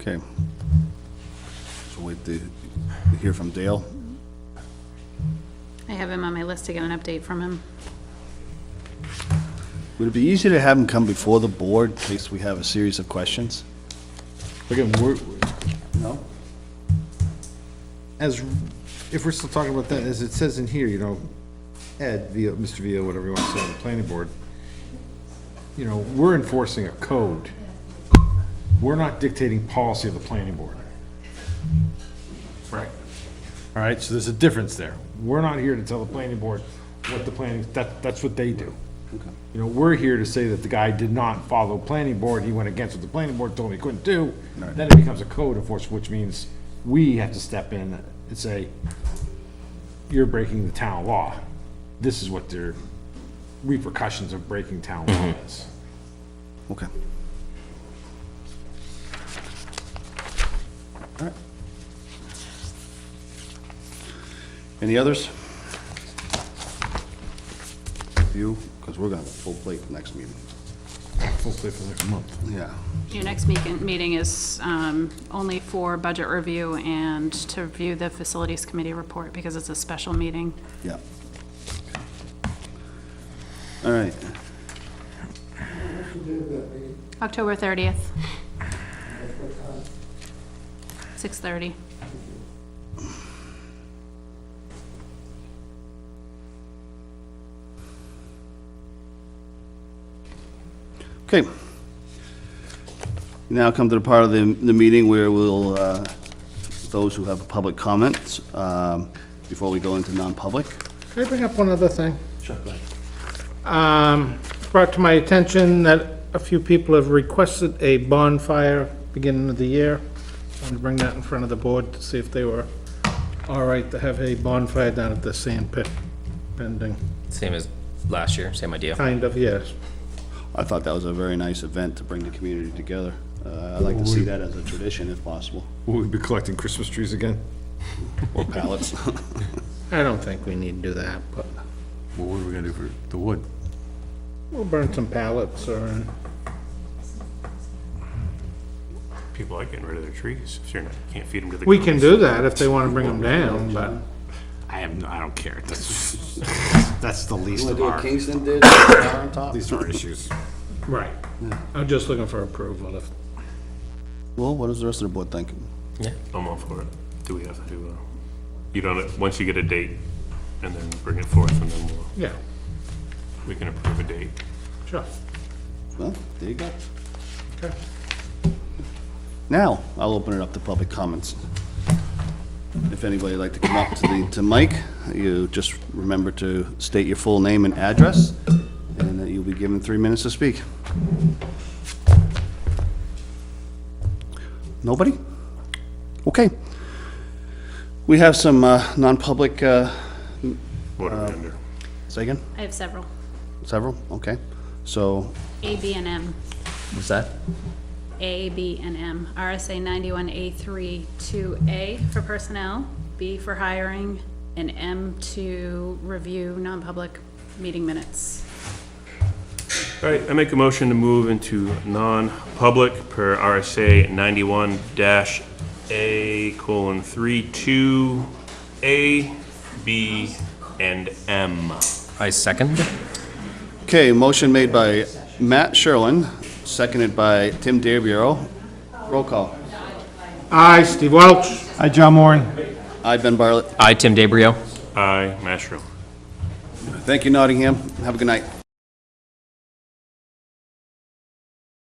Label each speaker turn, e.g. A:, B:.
A: Okay. So wait to to hear from Dale.
B: I have him on my list to get an update from him.
A: Would it be easier to have him come before the board in case we have a series of questions?
C: Again, we're,
A: No.
C: as, if we're still talking about that, as it says in here, you know, Ed, via, Mr. Via, whatever you want to say on the planning board, you know, we're enforcing a code. We're not dictating policy of the planning board. Right. All right, so there's a difference there. We're not here to tell the planning board what the planning, that, that's what they do. You know, we're here to say that the guy did not follow planning board, he went against what the planning board told him he couldn't do. Then it becomes a code enforcement, which means we have to step in and say, you're breaking the town law. This is what their repercussions of breaking town law is.
A: Okay. All right. Any others? You, because we're gonna have a full plate next meeting.
C: Full play for the next month.
A: Yeah.
B: Your next meeting, meeting is um, only for budget review and to review the facilities committee report because it's a special meeting.
A: Yeah. All right.
B: October 30th. 6:30.
A: Okay. Now come to the part of the, the meeting where we'll, uh, those who have public comments, um, before we go into non-public.
D: Can I bring up one other thing? Um, it's brought to my attention that a few people have requested a bonfire beginning of the year. I wanted to bring that in front of the board to see if they were all right to have a bonfire down at the sand pit pending,
E: Same as last year, same idea.
D: kind of, yes.
A: I thought that was a very nice event to bring the community together. Uh, I'd like to see that as a tradition if possible,
C: Will we be collecting Christmas trees again?
A: or pallets.
D: I don't think we need to do that, but
F: Well, what are we gonna do for the wood?
D: we'll burn some pallets or,
F: People are getting rid of their trees, if you're not, can't feed them to the.
D: we can do that if they want to bring them down, but
F: I have, no- I don't care, that's, that's the least of our,
A: Kingston did, on top?
F: these are issues.
D: Right. I'm just looking for approval if,
A: Well, what does the rest of the board think?
G: I'm all for it. Do we have to, uh, you don't, once you get a date, and then bring it forth, and then we'll,
D: yeah,
G: we can approve a date.
D: sure.
A: Well, there you go. Now, I'll open it up to public comments. If anybody'd like to come up to the, to Mike, you just remember to state your full name and address, and that you'll be given three minutes to speak. Nobody? Okay. We have some uh, non-public, uh,
G: What are we under?
A: say again,
B: I have several,
A: several, okay. So,
B: A, B, and M.
E: What's that?
B: A, B, and M. RSA 91A3, 2A for personnel, B for hiring, and M to review non-public meeting minutes.
G: All right, I make a motion to move into non-public per RSA ninety-one dash A colon three two A, B, and M.
E: I second.
A: Okay, motion made by Matt Sherlin, seconded by Tim DeBrio. Roll call.
D: Aye, Steve Welch. Aye, John Moran.
A: I, Ben Barlett.
E: I, Tim DeBrio.
G: Aye, Mashroom.
A: Thank you, Nottingham. Have a good night.